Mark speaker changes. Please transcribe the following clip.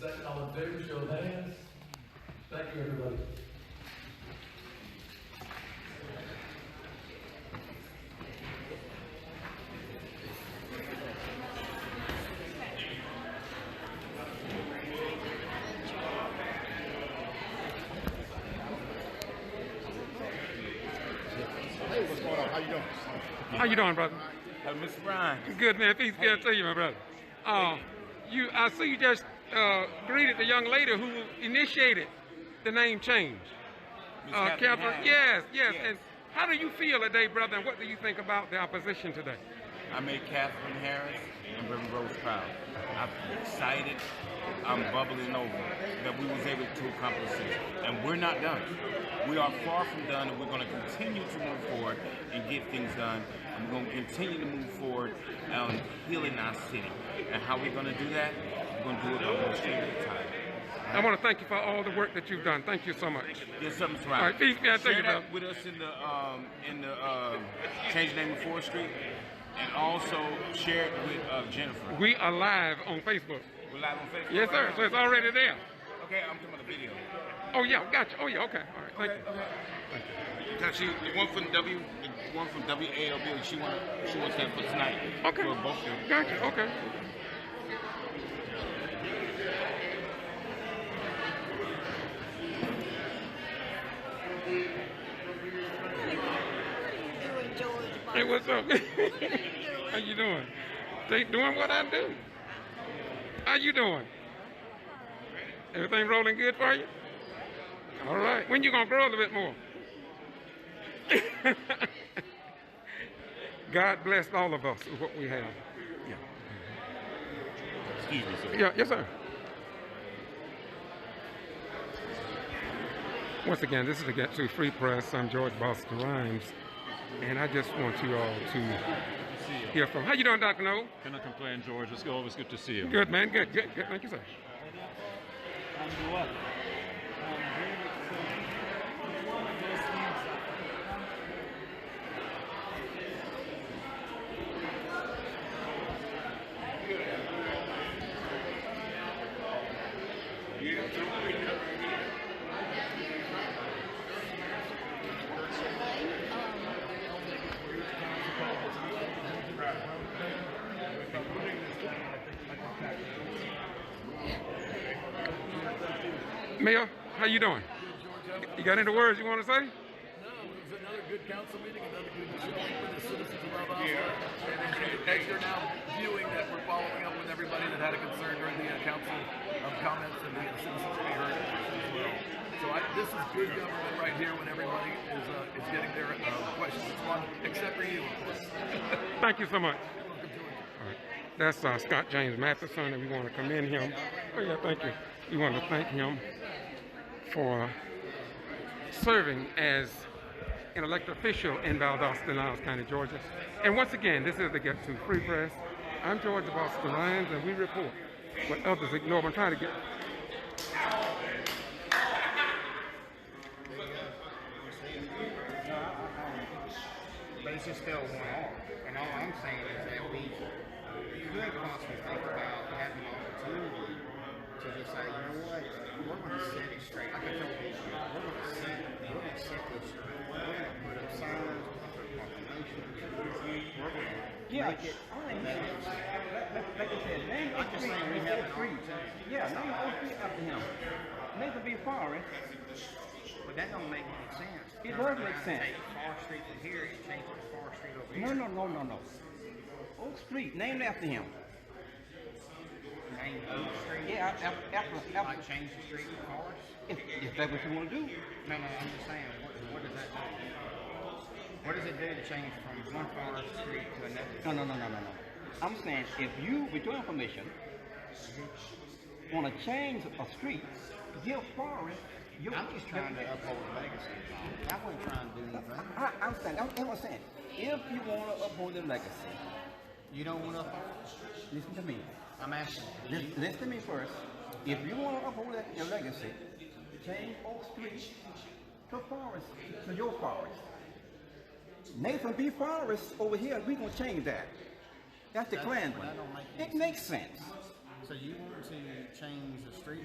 Speaker 1: all in favor, show of hands. Thank you, everybody.
Speaker 2: Hey, what's going on? How you doing?
Speaker 3: How you doing, brother?
Speaker 2: Uh, Mr. Brian.
Speaker 3: Good man. Peace be unto you, my brother. Uh, you, I see you just uh, greeted the young lady who initiated the name change.
Speaker 2: Miss
Speaker 3: Uh,
Speaker 2: Catherine
Speaker 3: Kevin,
Speaker 2: Hines.
Speaker 3: yes, yes, And how do you feel today, brother? And what do you think about the opposition today?
Speaker 2: I made Catherine Harris and River Rose proud. I'm excited. I'm bubbling over that we was able to accomplish this. And we're not done. We are far from done and we're going to continue to move forward and get things done. And we're going to continue to move forward on healing our city. And how we're going to do that? We're going to do it on one street at a time.
Speaker 3: I want to thank you for all the work that you've done. Thank you so much.
Speaker 2: Yes, something's
Speaker 3: All
Speaker 2: right.
Speaker 3: right, peace be unto
Speaker 2: Share
Speaker 3: you, brother.
Speaker 2: that with us in the um, in the uh, change the name of Fourth Street, and also share it with uh, Jennifer.
Speaker 3: We are live on Facebook.
Speaker 2: We're live on Facebook.
Speaker 3: Yes, sir.
Speaker 2: right
Speaker 3: So it's already there.
Speaker 2: now. Okay, I'm talking about the video.
Speaker 3: Oh yeah, gotcha. Oh yeah, okay. All right, thank you.
Speaker 2: Now she, the one from W, the one from WALB. She want she wants that for tonight.
Speaker 3: Okay.
Speaker 2: For both of them.
Speaker 3: Gotcha. Okay. Hey, what's up? How you doing? They doing what I do. How you doing? Everything rolling good for you? All right. When you gonna grow a little bit more? God bless all of us with what we have. Yeah.
Speaker 2: Excuse me, sir.
Speaker 3: Yeah, yes, sir. Once again, this is the Get Two Free Press. I'm George Boston Rhymes, and I just want you all to hear from. How you doing, Doctor No?
Speaker 4: Cannot complain, George. It's always good to see you.
Speaker 3: Good, man. Good, good, good. Thank you, sir. Mayor, how you doing? You got any words you want to say?
Speaker 5: It was another good council meeting, another good showing for the citizens of Mount Olive. And as as you're now viewing that we're following up with everybody that had a concern during the uh, council um, comments and the citizens to be heard as well. So I, this is good government right here when everybody is, uh, is getting their uh, questions responded, except for you, of course.
Speaker 3: Thank you so much.
Speaker 5: Welcome to it.
Speaker 3: All right. That's uh, Scott James Matheson, and we want to commend him. Oh, yeah, thank you. We want to thank him for serving as an elected official in Valdosta and Niles County, Georgia. And once again, this is the Get To Free Press. I'm George Boston Lyons, and we report what others ignore. I'm trying to get.
Speaker 6: But it's just still one off. And all I'm saying is that we could possibly think about having an opportunity to just say, you know what, we're going to set it straight. Like I told people, we're going to set, we're going to set this straight. We're going to put up signs, we're going to put proclamations, we're going to
Speaker 7: Yeah,
Speaker 6: make it.
Speaker 7: I
Speaker 6: Make it
Speaker 7: understand. Like- like- like I said, name
Speaker 6: I'm
Speaker 7: a
Speaker 6: just
Speaker 7: street
Speaker 6: saying we
Speaker 7: instead
Speaker 6: have
Speaker 7: of
Speaker 6: an
Speaker 7: free.
Speaker 6: opportunity.
Speaker 7: Yeah, name a street after him. Make it be eh? foreign.
Speaker 6: but that don't make any sense.
Speaker 7: It
Speaker 6: Turn
Speaker 7: does
Speaker 6: around
Speaker 7: make
Speaker 6: and
Speaker 7: sense.
Speaker 6: Take Far Street from here and change it to Far Street over here.
Speaker 7: No, no, no, no, no. Oak Street, named after him.
Speaker 6: Name Oak Street.
Speaker 7: Yeah, af- af- after,
Speaker 6: Like
Speaker 7: after.
Speaker 6: change the street to Forest.
Speaker 7: If, if that's what you want to do.
Speaker 6: No, no, I'm just saying, what, what does that do? What does it do to change from one forest street to another?
Speaker 7: No, no, no, no, no, no. I'm saying if you, with your information, want to change a street, eh? give foreign. your-
Speaker 6: I'm just trying to uphold legacy. I wasn't trying to do anything.
Speaker 7: I, I'm saying, I'm, I'm saying, if you want to uphold the legacy,
Speaker 6: You don't want to uphold?
Speaker 7: listen to me.
Speaker 6: I'm asking, do you?
Speaker 7: Lis- Listen to me first. If you want to uphold that- your legacy, change Oak Street to Forest, to your Forest. Nathan B. Forest over here, we gonna change that. That's the
Speaker 6: That-
Speaker 7: grand
Speaker 6: that
Speaker 7: one.
Speaker 6: don't make any
Speaker 7: It makes sense.
Speaker 6: So you want to change the street